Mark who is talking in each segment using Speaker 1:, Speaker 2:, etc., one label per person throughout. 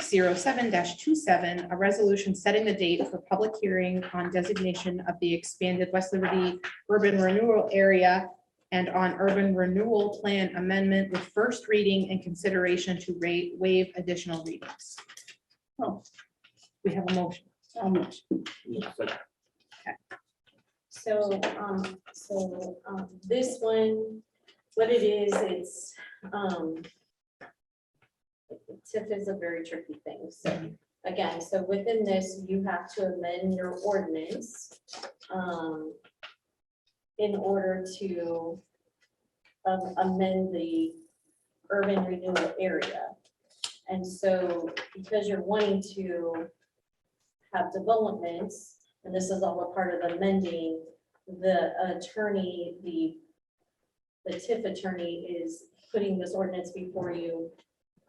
Speaker 1: 0607-27, a resolution setting the date for public hearing on designation of the expanded West Liberty urban renewal area and on urban renewal plan amendment with first reading and consideration to rate waive additional readings.
Speaker 2: Oh.
Speaker 1: We have a motion.
Speaker 2: So much.
Speaker 3: Second.
Speaker 2: So, um, so, um, this one, what it is, it's, um, TIF is a very tricky thing, so, again, so within this, you have to amend your ordinance, um, in order to um, amend the urban renewal area. And so, because you're wanting to have developments, and this is all a part of amending, the attorney, the, the TIF attorney is putting this ordinance before you,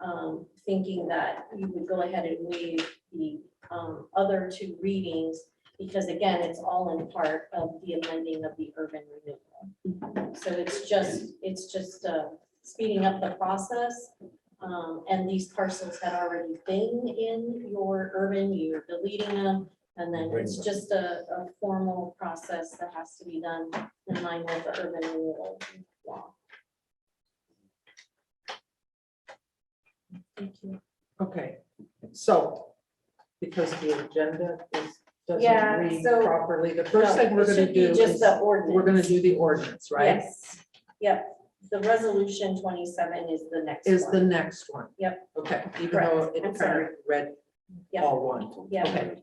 Speaker 2: um, thinking that you would go ahead and waive the, um, other two readings, because again, it's all in part of the amending of the urban renewal. So it's just, it's just, uh, speeding up the process. Um, and these parcels had already been in your urban, you're deleting them, and then it's
Speaker 3: Right.
Speaker 2: just a, a formal process that has to be done in line with the urban renewal law. Thank you.
Speaker 4: Okay, so, because the agenda is,
Speaker 2: Yeah,
Speaker 4: doesn't read
Speaker 2: so-
Speaker 4: properly, the first thing
Speaker 2: No,
Speaker 4: we're
Speaker 2: it
Speaker 4: gonna
Speaker 2: should be
Speaker 4: do
Speaker 2: Just
Speaker 4: is,
Speaker 2: the ordinance.
Speaker 4: we're gonna do the ordinance, right?
Speaker 2: Yes, yep, the resolution twenty-seven is the next one.
Speaker 4: Is the next one.
Speaker 2: Yep.
Speaker 4: Okay, even though
Speaker 2: I'm
Speaker 4: it kind
Speaker 2: sorry.
Speaker 4: of read
Speaker 2: Yep.
Speaker 4: all one.
Speaker 2: Yeah,
Speaker 4: Okay.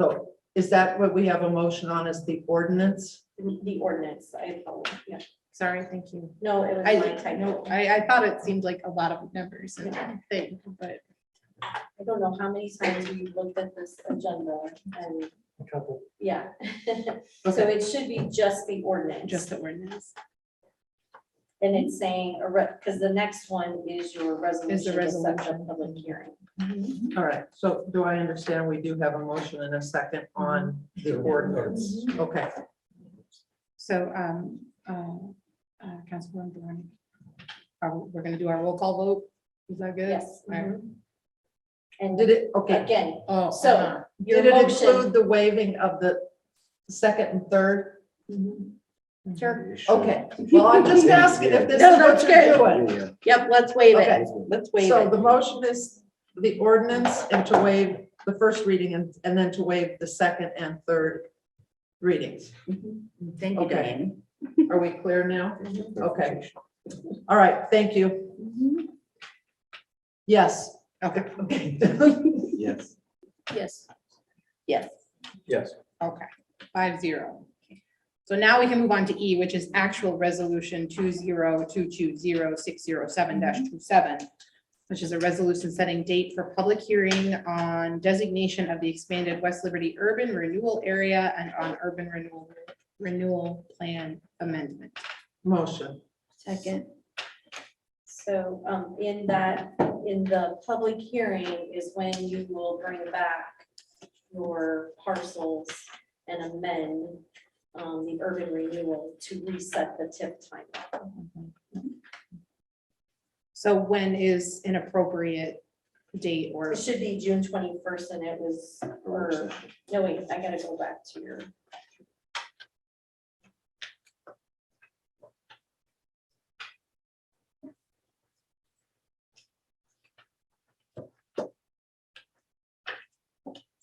Speaker 4: So is that what we have a motion on is the ordinance?
Speaker 2: the the ordinance, I, apologize. yeah,
Speaker 1: Sorry, thank you.
Speaker 2: no, it was
Speaker 1: I,
Speaker 2: my
Speaker 1: I know-
Speaker 2: typo. I
Speaker 1: I, I thought it seemed like a lot of numbers and thing, but
Speaker 2: don't know how many times we looked at this agenda and,
Speaker 3: A couple.
Speaker 2: yeah. So
Speaker 4: Okay,
Speaker 2: it should be just the ordinance.
Speaker 1: just the ordinance
Speaker 2: And it's saying, because the next one is your resolution to set the
Speaker 1: resolution.
Speaker 2: public hearing.
Speaker 4: all right, so do I understand we do have a motion and a second on the ordinance?
Speaker 2: Mhm.
Speaker 4: Okay,
Speaker 1: So, um, uh, uh, Councilwoman Barone. Are, we- we're gonna do our roll call vote? Is that good?
Speaker 2: Yes.
Speaker 1: All right.
Speaker 2: mhm. And
Speaker 4: did it, okay.
Speaker 2: again,
Speaker 1: Oh.
Speaker 2: So,
Speaker 4: uh-huh.
Speaker 2: your
Speaker 4: Did it
Speaker 2: motion,
Speaker 4: include the waiving of the second and third?
Speaker 2: Mhm.
Speaker 1: Sure.
Speaker 4: Okay, well, I'm just asking if this is
Speaker 5: No,
Speaker 4: what
Speaker 5: that's
Speaker 4: you're
Speaker 5: good.
Speaker 4: doing.
Speaker 5: Yep, let's waive
Speaker 4: Okay.
Speaker 5: it. Let's waive
Speaker 4: So
Speaker 5: it.
Speaker 4: the motion is the ordinance and to waive the first reading and, and then to waive the second and third readings.
Speaker 5: Thank you,
Speaker 4: okay.
Speaker 5: Diane.
Speaker 4: Are we clear now? Okay. All right, thank you. Yes.
Speaker 1: Okay,
Speaker 4: Okay.
Speaker 3: Yes.
Speaker 5: Yes. Yes.
Speaker 3: Yes.
Speaker 1: okay, five zero. So now we can move on to E, which is actual resolution two zero two two zero six zero seven dash two seven. Which is a resolution setting date for public hearing on designation of the expanded West Liberty urban renewal area and on urban renewal renewal plan amendment.
Speaker 4: Motion.
Speaker 5: Second.
Speaker 2: so um, in that, in the public hearing is when you will bring back your parcels and amend um, the urban renewal to reset the tip timeline.
Speaker 1: So when is an appropriate date or,
Speaker 2: It should be June twenty-first and it was, or, no, wait, I gotta go back to your.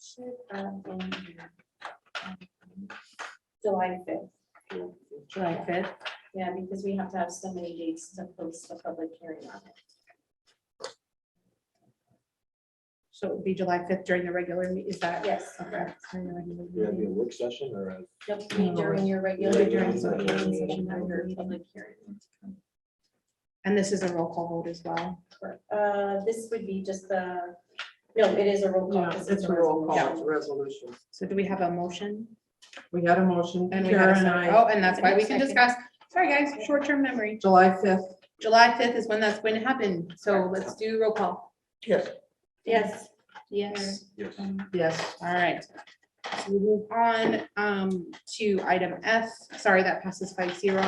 Speaker 2: Should have been here. July fifth,
Speaker 1: July fifth?
Speaker 2: yeah, because we have to have so many dates to post a public hearing on it.
Speaker 1: So it would be July fifth during the regular, me- is that?
Speaker 2: Yes.
Speaker 1: Okay. during the regular
Speaker 3: We have a
Speaker 1: meeting.
Speaker 3: work session or a
Speaker 2: Yep, meet during your regular
Speaker 3: Yeah,
Speaker 2: meetings
Speaker 3: during the regular
Speaker 2: and
Speaker 1: meeting.
Speaker 2: your public hearing.
Speaker 1: And this is a roll call vote as well.
Speaker 2: Uh, this would be just the, no, it is a roll call.
Speaker 4: Yeah,
Speaker 2: 'cause
Speaker 4: it's a roll call, it's a
Speaker 2: resolution.
Speaker 4: resolution.
Speaker 1: So do we have a motion?
Speaker 4: We had a motion,
Speaker 1: And we had a
Speaker 4: Kara and
Speaker 1: second.
Speaker 4: I,
Speaker 1: Oh, and that's why we can
Speaker 5: Second.
Speaker 1: discuss. Sorry, guys, short-term memory.
Speaker 4: July fifth.
Speaker 1: July fifth is when that's going to happen. So let's do roll call.
Speaker 4: Yes.
Speaker 2: Yes,
Speaker 1: Yes.
Speaker 3: Yes.
Speaker 4: Yes.
Speaker 1: All right. So we move on um to item F. Sorry, that passes five zero.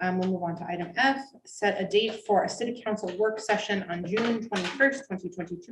Speaker 1: Um, we'll move on to item F, set a date for a city council work session on June twenty-first, twenty twenty-two